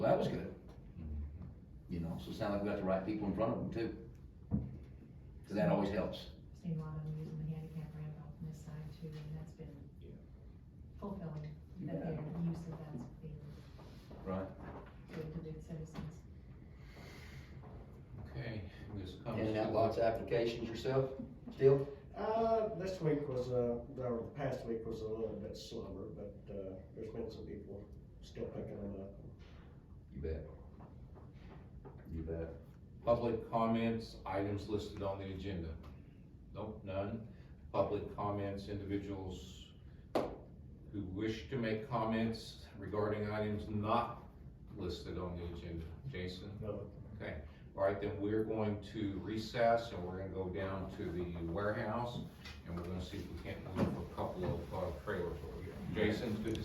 was good. You know, so it sounds like we got the right people in front of them too. Cause that always helps. Seen a lot of them using the handicap ramp off this side too, and that's been fulfilling, that their use of that's been Right. good to good citizens. Okay, this comes. And to that the- lots of applications yourself, still? Uh, this week was, uh, or the past week was a little bit slower, but, uh, there's been some people still picking them up. You bet. You bet. Public comments, items listed on the agenda. Nope, none. Public comments, individuals who wish to make comments regarding items not listed on the agenda. Jason? No. Okay, all right, then we're going to recess and we're gonna go down to the warehouse and we're gonna see if we can't move a couple of uh, trailers over here. Jason, good to